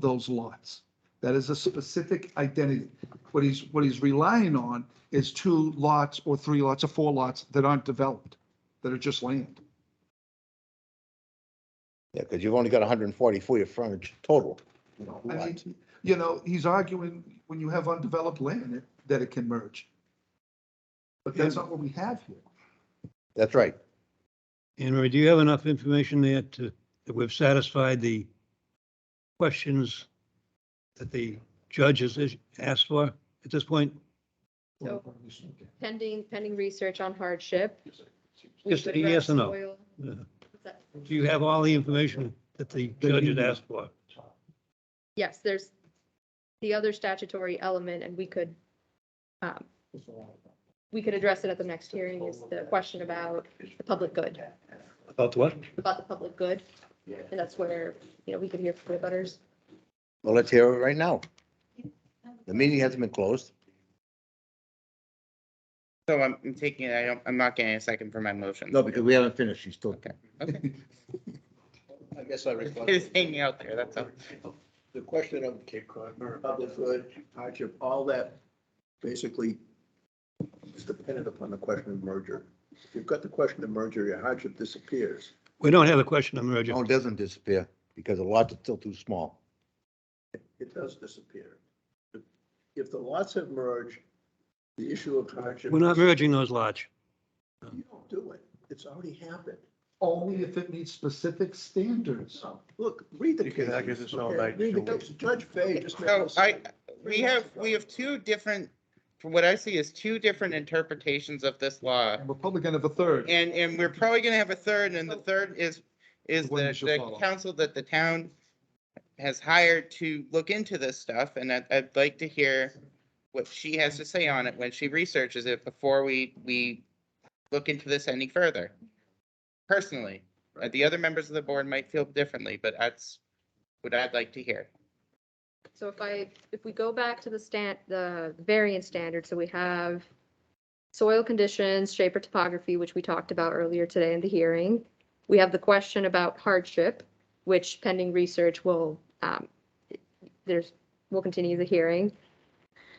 those lots. That is a specific identity. What he's, what he's relying on is two lots or three lots or four lots that aren't developed, that are just land. Yeah, because you've only got hundred and forty feet of frontage total. I mean, Right. You know, he's arguing when you have undeveloped land it- that it can merge. But that's not what we have here. That's right. Anne Marie, do you have enough information there to, that we've satisfied the questions that the judge has is- asked for at this point? So- Pending, pending research on hardship. We Just could a yes or address no. soil- Uh, what's that? Do you have all the information that the judge has asked for? Yes, there's the other statutory element and we could, um, we could address it at the next hearing is the question about the public good, About what? about the public good. And that's where, you know, we could hear from the butters. Well, let's hear it right now. The meeting hasn't been closed. So I'm I'm taking it, I don't, I'm not getting a second for my motion. No, because we haven't finished. She's still. Okay, okay. I guess I It's request hanging out there, that's all. the question of Cape Cod, or public good, hardship, all that basically is dependent upon the question of merger. If you've got the question of merger, your hardship disappears. We don't have a question on merger. No, it doesn't disappear because the lots are still too small. It does disappear. If the lots have merged, the issue of hardship. We're not merging those lots. You don't do it. It's already happened. Only if it meets specific standards. So, Look, read the You could cases. argue this all okay? night, Read the sure. cases. Judge Fay just made. So this- I, we have, we have two different, from what I see is two different interpretations of this law. And Republican of a third. And, and we're probably gonna have a third, and the third is, is The one the, you should the follow. council that the town has hired to look into this stuff, and I'd, I'd like to hear what she has to say on it when she researches it before we, we look into this any further. Personally, Uh, the other members of the board might feel differently, but that's what I'd like to hear. So if I, if we go back to the stan the variance standard, so we have soil conditions, shape or topography, which we talked about earlier today in the hearing. We have the question about hardship, which pending research will, um, there's, we'll continue the hearing.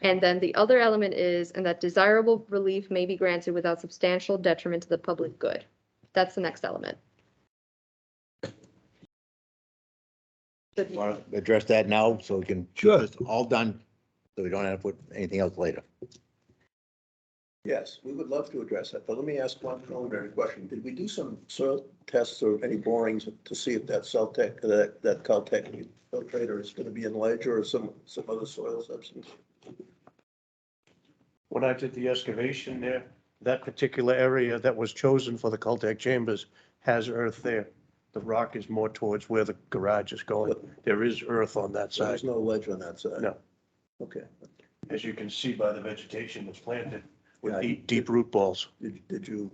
And then the other element is, and that desirable relief may be granted without substantial detriment to the public good. That's the next element. Want to address that now so we can. Sure. It's all done, so we don't have to put anything else later. Yes, we would love to address that, but let me ask one preliminary question. Did we do some soil tests or any borings to see if that Celtech, that, that Caltech filtrator is gonna be in ledger or some, some other soil substance? When I did the excavation there, that particular area that was chosen for the Caltech chambers has earth there. The rock is more towards where the garage is going. There is earth on that So side. There's no ledger on that side? No. Okay. As you can see by the vegetation that's planted with Yeah. deep, deep root balls. Did, did you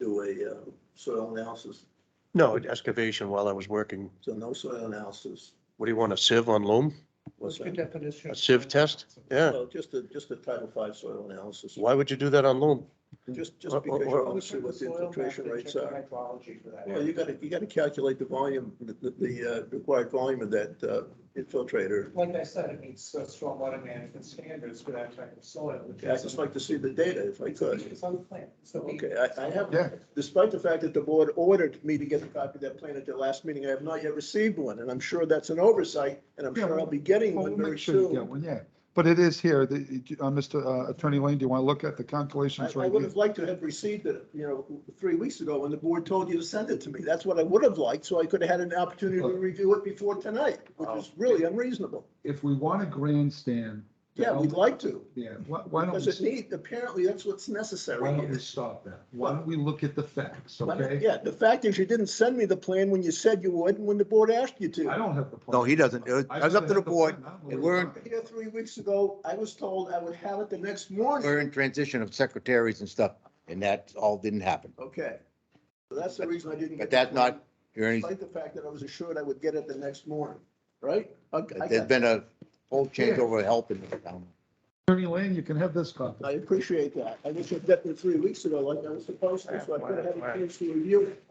do a uh, soil analysis? No, excavation while I was working. So no soil analysis What do you want, a sieve on loam? was done? A sieve test? Yeah. Well, just a, just a Title V soil analysis, Why would you do that on loam? just, Or- or- just because or- you want to see what the infiltration rates are. Well, you gotta, you gotta calculate the volume, the, the- the uh, required volume of that uh, infiltrator. Like I said, it meets uh, stormwater management standards for that type of soil. which I'd is- just like to see the data if I could. It's on the plan. So we- Okay, I, I Yeah. have, despite the fact that the board ordered me to get a copy of that plan at their last meeting, I have not yet received one, and I'm sure that's an oversight, and I'm Yeah, sure I'll well- be getting Well, one we'll very make sure you get soon. one, yeah. But it is here, the, uh, Mr. uh, Attorney Lane, do you want to look at the I, calculations I right would here? have liked to have received it, you know, three weeks ago when the board told you to send it to me. That's what I would have liked, so I could have had an opportunity to Look. review it before tonight, which oh. is really unreasonable. If we want a grandstand. Yeah, we'd like to, Yeah, why, why don't because it we, need, apparently that's what's why necessary don't here. we stop that? Why don't we look at the facts, Why not? okay? Yeah, the fact is you didn't send me the plan when you said you would and when the board asked you I to. don't have the. plan. No, he doesn't. It was- I it was up to have the board. plan. I don't know It where weren't- it's at. Here three weeks ago, I was told I would have it the next morning. We're in transition of secretaries and stuff, and that all didn't happen. Okay. So that's the reason I didn't. But get the that's plan, not, you're any- Despite the fact that I was assured I would get it the next morning, right? Okay, I there's got it. been a whole change over help in the town. Attorney Lane, you can have this copy. I appreciate that. I wish I'd gotten it three weeks ago like I was supposed to, so I could have had a chance to review it.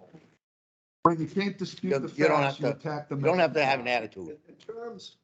But you can't dispute You- the you don't facts, have you to- attack the. You don't have to have an message. attitude. In in terms